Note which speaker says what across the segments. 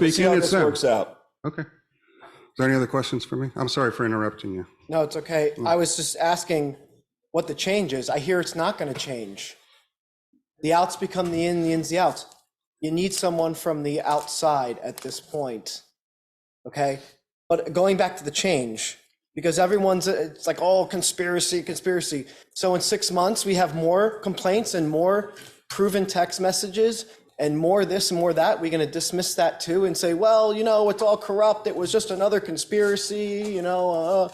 Speaker 1: We'll see
Speaker 2: speaking,
Speaker 1: how
Speaker 2: it's
Speaker 1: this
Speaker 2: them.
Speaker 1: works out.
Speaker 2: Okay. Is there any other questions for me? I'm sorry for interrupting you.
Speaker 3: No, it's okay. I was just asking what the change is. I hear it's not going to change. The outs become the in, the ins the outs. You need someone from the outside at this point. Okay? But going back to the change, because everyone's, it's like, oh, conspiracy, conspiracy. So in six months, we have more complaints and more proven text messages and more this and more that. We're going to dismiss that too and say, well, you know, it's all corrupt. It was just another conspiracy, you know. Uh,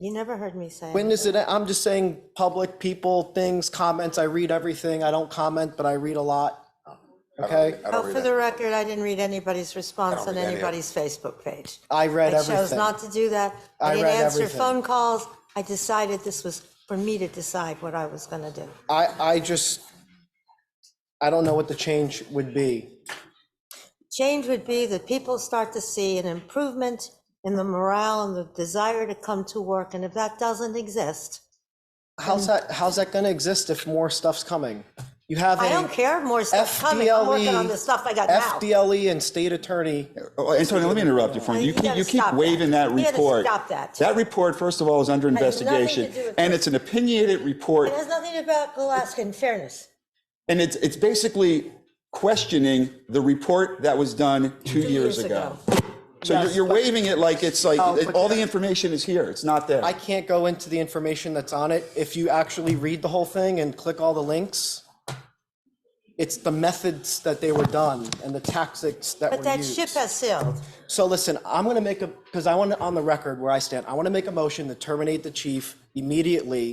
Speaker 4: You never heard me say.
Speaker 3: when
Speaker 4: it.
Speaker 3: is it, I'm just saying, public people, things, comments, I read everything, I don't comment, but I read a lot, okay?
Speaker 4: Oh, for the record, I didn't read anybody's response on anybody's Facebook page.
Speaker 3: I read
Speaker 4: I chose
Speaker 3: everything.
Speaker 4: not to do that.
Speaker 3: I
Speaker 4: I didn't
Speaker 3: read
Speaker 4: answer
Speaker 3: everything.
Speaker 4: phone calls. I decided this was for me to decide what I was gonna do.
Speaker 3: I, I just, I don't know what the change would be.
Speaker 4: Change would be that people start to see an improvement in the morale and the desire to come to work, and if that doesn't exist,
Speaker 3: How's that, how's that gonna exist if more stuff's coming? You have
Speaker 4: I don't
Speaker 3: a
Speaker 4: care, more stuff coming,
Speaker 3: E
Speaker 4: I'm working on the stuff I got now.
Speaker 3: FDLE E and state attorney,
Speaker 1: Oh, Antonio, let me interrupt you for a
Speaker 4: No,
Speaker 1: minute.
Speaker 4: you
Speaker 1: You keep,
Speaker 4: gotta
Speaker 1: you keep
Speaker 4: stop that.
Speaker 1: waving that
Speaker 4: You gotta
Speaker 1: report.
Speaker 4: stop that.
Speaker 1: That report, first of all, is under
Speaker 4: nothing to
Speaker 1: investigation,
Speaker 4: do with
Speaker 1: and
Speaker 4: that.
Speaker 1: it's an opinionated report,
Speaker 3: E
Speaker 4: It has nothing about Alaska and fairness.
Speaker 1: and it's, it's basically questioning the report that was done two years ago. So you're, you're waving it like it's like,
Speaker 4: Oh,
Speaker 3: but
Speaker 1: all the information is here, it's not there.
Speaker 3: I can't go into the information that's on it. If you actually read the whole thing and click all the links, it's the methods that they were done and the tactics that
Speaker 4: But
Speaker 3: were
Speaker 4: that ship
Speaker 3: used.
Speaker 4: has sailed.
Speaker 3: So listen, I'm gonna make a, because I want, to on the record where I stand, I want to make a motion to terminate the chief immediately,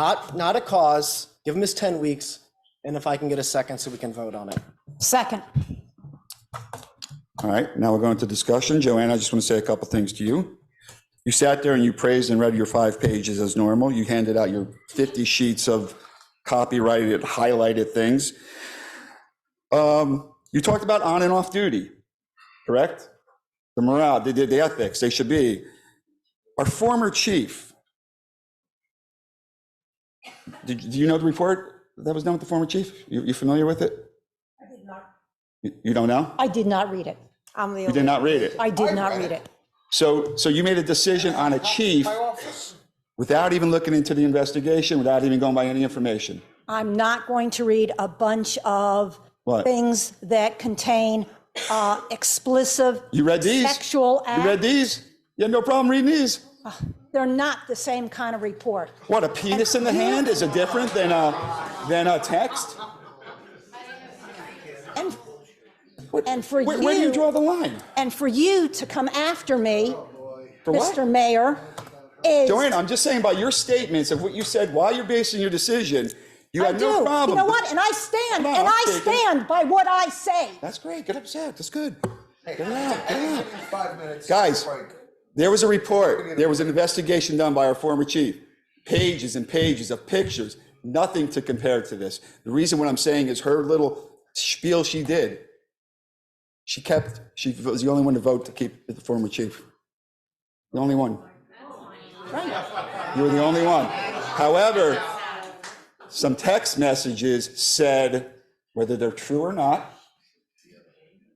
Speaker 3: not, not a cause, give him his 10 weeks, and if I can get a second so we can vote on it.
Speaker 5: Second.
Speaker 1: All right, now we're going to discussion. Joanne, I just want to say a couple things to you. You sat there and you praised and read your five pages as normal. You handed out your 50 sheets of copyrighted, highlighted things. Um, You talked about on and off duty, correct? The morale, the, the- the ethics, they should be. Our former chief, did, do you know the report that was done with the former chief? You, you familiar with it? I did not. You don't know?
Speaker 5: I did not read it.
Speaker 4: I'm the
Speaker 1: You did
Speaker 4: only-
Speaker 1: not read it.
Speaker 5: I did not read it.
Speaker 1: So, so you made a decision on a chief without even looking into the investigation, without even going by any information.
Speaker 5: I'm not going to read a bunch of
Speaker 1: What?
Speaker 5: things that contain uh, explicit.
Speaker 1: You read these?
Speaker 5: Sexual
Speaker 1: You read
Speaker 5: act.
Speaker 1: these? You had no problem reading these?
Speaker 5: They're not the same kind of report.
Speaker 1: What, a penis in the hand is a different than a, than a text?
Speaker 5: And, and for
Speaker 1: Where, where do you
Speaker 5: you,
Speaker 1: draw the line?
Speaker 5: and for you to come after me,
Speaker 1: For what?
Speaker 5: Mr. Mayor, is.
Speaker 1: Joanne, I'm just saying by your statements of what you said while you're basing your decision, you
Speaker 5: I
Speaker 1: had
Speaker 5: do.
Speaker 1: no problem.
Speaker 5: You know what? And I stand,
Speaker 1: Come on,
Speaker 5: and
Speaker 1: I'm
Speaker 5: I
Speaker 1: taking-
Speaker 5: stand by what I say.
Speaker 1: That's great. Get upset. That's good. Get it out. Get it out. Five minutes. Guys, there was a report. There was an investigation done by our former chief. Pages and pages of pictures. Nothing to compare to this. The reason what I'm saying is her little spiel she did. She kept. She was the only one to vote to keep the former chief. The only one. You were the only one. However, some text messages said, whether they're true or not,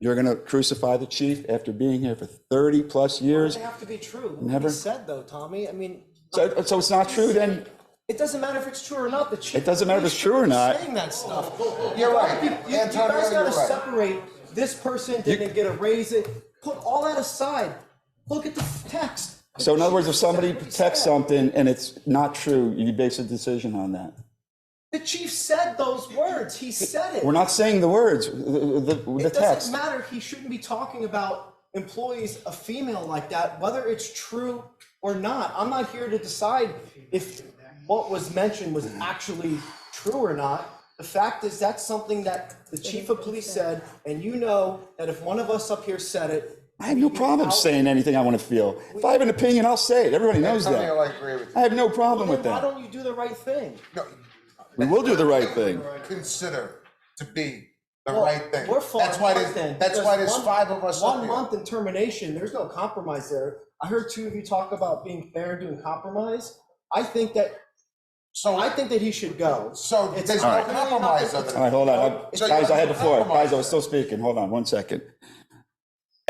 Speaker 1: you're going to crucify the chief after being here for 30 plus years.
Speaker 3: They have to be true.
Speaker 1: Never.
Speaker 3: Never said though, Tommy. I mean,
Speaker 1: So, so it's not true then?
Speaker 3: it doesn't matter if it's true or not. The chief.
Speaker 1: It doesn't matter if it's true or not.
Speaker 3: Saying that stuff. You're right. You, you guys gotta separate. This person didn't get a raise. It. Put all that aside. Look at the f- text.
Speaker 1: So in other words, if somebody
Speaker 3: The chief said what he
Speaker 1: texts
Speaker 3: said.
Speaker 1: something and it's not true, you base a decision on that.
Speaker 3: The chief said those words. He said it.
Speaker 1: We're not saying the words, the, the, the
Speaker 3: It doesn't
Speaker 1: text.
Speaker 3: matter. He shouldn't be talking about employees, a female like that, whether it's true or not. I'm not here to decide if what was mentioned was actually true or not. The fact is, that's something that the chief of police said, and you know that if one of us up here said it,
Speaker 1: I have no problem saying anything I want to feel. If I have an opinion, I'll say it. Everybody knows
Speaker 6: Antonio, I
Speaker 1: that.
Speaker 6: agree with
Speaker 1: I
Speaker 6: you.
Speaker 1: have no problem
Speaker 3: then
Speaker 1: with
Speaker 3: why
Speaker 1: that.
Speaker 3: don't you do the right thing?
Speaker 6: No,
Speaker 1: We will do the right thing.
Speaker 6: Consider to be the
Speaker 3: Well,
Speaker 6: right thing.
Speaker 3: We're falling
Speaker 6: That's why
Speaker 3: apart
Speaker 6: there's,
Speaker 3: then,
Speaker 6: that's why
Speaker 3: because one-
Speaker 6: there's five of us up
Speaker 3: One
Speaker 6: here.
Speaker 3: month in termination, there's no compromise there. I heard two of you talk about being fair and doing compromise. I think that,
Speaker 6: So
Speaker 3: I think that he should go.
Speaker 6: So
Speaker 3: It's
Speaker 6: there's
Speaker 3: not
Speaker 6: no
Speaker 3: really
Speaker 6: compromise
Speaker 3: nothing-
Speaker 6: under
Speaker 1: All right, hold on. I-
Speaker 6: So-
Speaker 1: Guys, I had the floor. Guys, I was still speaking. Hold on one second.